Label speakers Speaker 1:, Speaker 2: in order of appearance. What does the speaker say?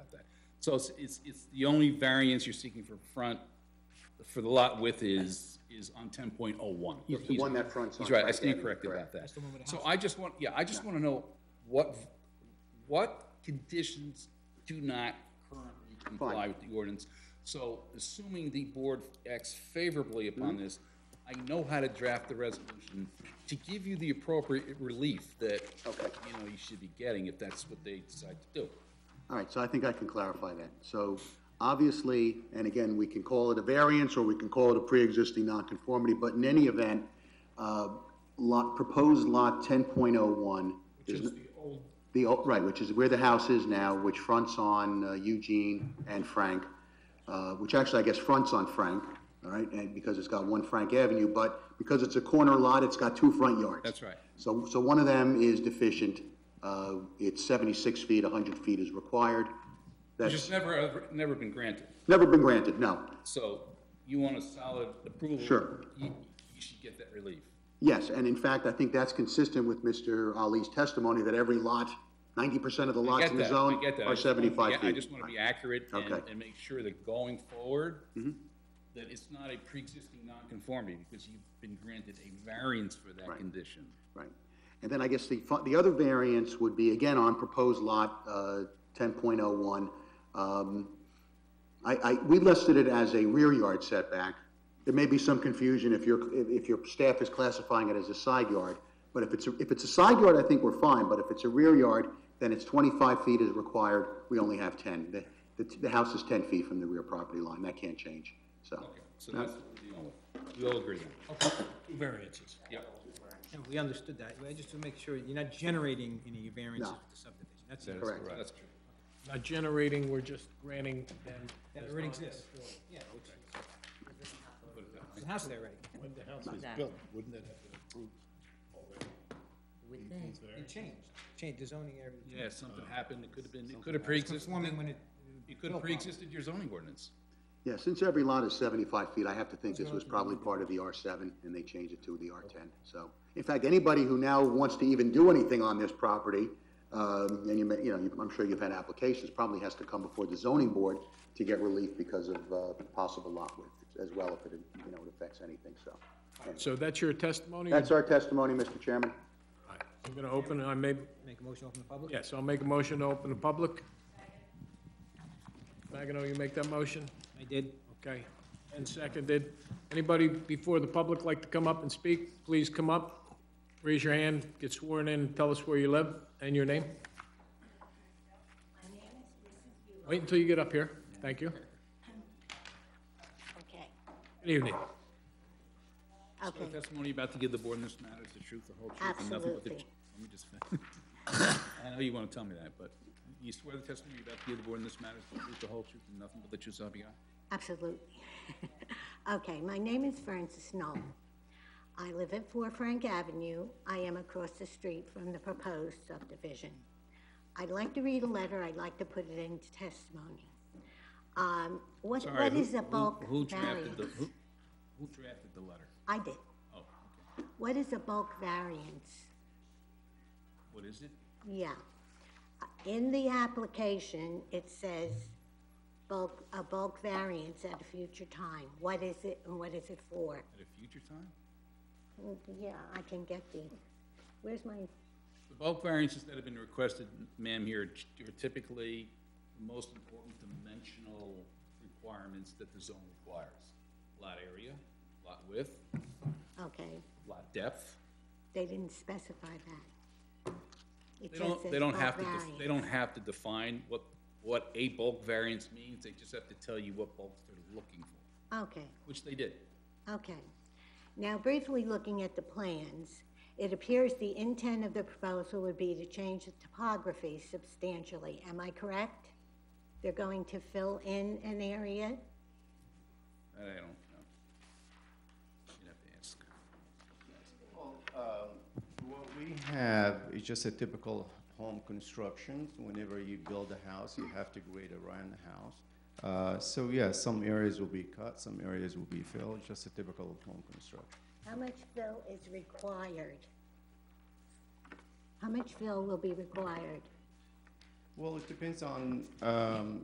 Speaker 1: So it's, it's, it's the only variance you're seeking for front, for the lot width is, is on ten point oh one.
Speaker 2: the one that fronts on
Speaker 1: He's right, I
Speaker 2: Frank
Speaker 1: stand
Speaker 2: Avenue,
Speaker 1: corrected about
Speaker 2: correct.
Speaker 1: that. So I just want, yeah, I just wanna know what, what conditions do not currently comply
Speaker 2: Fine.
Speaker 1: with the ordinance? So assuming the board acts favorably upon
Speaker 2: Mm-hmm.
Speaker 1: this, I know how to draft the resolution to give you the appropriate relief that,
Speaker 2: Okay.
Speaker 1: you know, you should be getting if that's what they decide to do.
Speaker 2: All right, so I think I can clarify that. So obviously, and again, we can call it a variance or we can call it a pre-existing nonconformity, but in any event, uh, lot, proposed lot ten point oh one. Which is the old. right, which is where the house is now, which fronts on uh, Eugene and Frank, uh, which actually I guess fronts on Frank, all right, and because it's got one Frank Avenue, but because it's a corner lot, it's got two front yards.
Speaker 1: That's right.
Speaker 2: So, so one of them is deficient. Uh, It's 76 feet, 100 feet is required.
Speaker 1: Which
Speaker 2: That's
Speaker 1: has never, ever- never been granted.
Speaker 2: never been granted, no.
Speaker 1: So you want a solid approval?
Speaker 2: Sure.
Speaker 1: You, you should get that relief.
Speaker 2: Yes, and in fact, I think that's consistent with Mr. Ali's testimony that every lot, 90% of the
Speaker 1: I
Speaker 2: lots
Speaker 1: get
Speaker 2: in the
Speaker 1: that, I
Speaker 2: zone
Speaker 1: get that. I
Speaker 2: are
Speaker 1: just wanna be-
Speaker 2: 75 feet.
Speaker 1: I just want to be accurate and,
Speaker 2: Okay. Mm-hmm.
Speaker 1: and make sure that going forward, that it's not a pre-existing nonconformity because you've been granted a variance for that condition.
Speaker 2: Right. And then I guess the, fu- the other variance would be, again, on proposed lot uh, ten point oh one. Um, I, I, we listed it as a rear yard setback. There may be some confusion if your, if if your staff is classifying it as a side yard. But if it's, a- if it's a side yard, I think we're fine, but if it's a rear yard, then it's twenty-five feet is required. We only have ten. The, the, the house is ten feet from the rear property line. That can't change, so.
Speaker 1: So that's what we're dealing with. We all agree on that.
Speaker 3: Two variances.
Speaker 1: Yep.
Speaker 4: Yeah, we understood that. I just to make sure you're not generating any variances
Speaker 2: No.
Speaker 4: with the subdivision. That's
Speaker 1: That
Speaker 4: it.
Speaker 1: is
Speaker 2: Correct.
Speaker 1: That's true.
Speaker 3: Not generating, we're just granting them.
Speaker 4: That already exists. Yeah. which- There's a house there already.
Speaker 3: When the house was
Speaker 5: Exactly.
Speaker 3: built, wouldn't it have been approved?
Speaker 5: Would think.
Speaker 4: It changed, changed the zoning area.
Speaker 1: Yeah, something happened. It could have been, it could have pre-existed,
Speaker 4: Conforming when it.
Speaker 1: you could have pre-existed your zoning ordinance.
Speaker 2: Yeah, since every lot is 75 feet, I have to think this was probably part of the R7, and they changed it to the R10. So, in fact, anybody who now wants to even do anything on this property, um, and you may, you know, you- I'm sure you've had applications, probably has to come before the zoning board to get relief because of uh, possible lot width as well, if it, you know, it affects anything, so.
Speaker 3: So that's your testimony?
Speaker 2: That's our testimony, Mr. Chairman.
Speaker 3: I'm gonna open, I may,
Speaker 4: Make a motion open the public?
Speaker 3: yes, I'll make a motion to open the public. Magano, you make that motion?
Speaker 4: I did.
Speaker 3: Okay. And seconded. Anybody before the public like to come up and speak? Please come up, raise your hand, get sworn in, tell us where you live and your name. Wait until you get up here. Thank you.
Speaker 5: Okay,
Speaker 3: Good evening.
Speaker 1: The
Speaker 5: okay,
Speaker 1: testimony you're about to give the board in this matter is the truth, the whole truth, and nothing but the.
Speaker 5: Absolutely.
Speaker 1: Let me just. I know you want to tell me that, but you swear the testimony you're about to give the board in this matter is the truth, the whole truth, and nothing but the truth, so help you God?
Speaker 5: absolutely. Okay, my name is Frances Knoll. I live at 4 Frank Avenue. I am across the street from the proposed subdivision. I'd like to read a letter, I'd like to put it into testimony. Um, What
Speaker 1: Sorry,
Speaker 5: what
Speaker 1: who-
Speaker 5: is a
Speaker 1: who-
Speaker 5: bulk
Speaker 1: Who drafted the,
Speaker 5: variance?
Speaker 1: who, who drafted the letter?
Speaker 5: I did.
Speaker 1: Oh, okay.
Speaker 5: What is a bulk variance?
Speaker 1: What is it?
Speaker 5: Yeah. In the application, it says bulk, a bulk variance at a future time. What is it and what is it for?
Speaker 1: At a future time?
Speaker 5: Mm, Yeah, I can get the, where's my,
Speaker 1: The bulk variances that have been requested, ma'am, here are typically the most important dimensional requirements that the zone requires. Lot area, lot width,
Speaker 5: okay,
Speaker 1: lot depth.
Speaker 5: they didn't specify that. It
Speaker 1: They
Speaker 5: just
Speaker 1: don't,
Speaker 5: says "Oh,
Speaker 1: they don't
Speaker 5: bulk
Speaker 1: have to, def- they
Speaker 5: variance.
Speaker 1: don't have to define what, what a bulk variance means, they just have to tell you what bulk they're looking for,
Speaker 5: Okay.
Speaker 1: which they did.
Speaker 5: Okay. Now briefly looking at the plans, it appears the intent of the proposal would be to change the topography substantially. Am I correct? They're going to fill in an area?
Speaker 1: That I don't know. You'd have to ask.
Speaker 6: um, What we have is just a typical home construction. Whenever you build a house, you have to grade around the house. Uh, So yeah, some areas will be cut, some areas will be filled, just a typical home construction.
Speaker 5: How much fill is required? How much fill will be required?
Speaker 6: Well, it depends on um,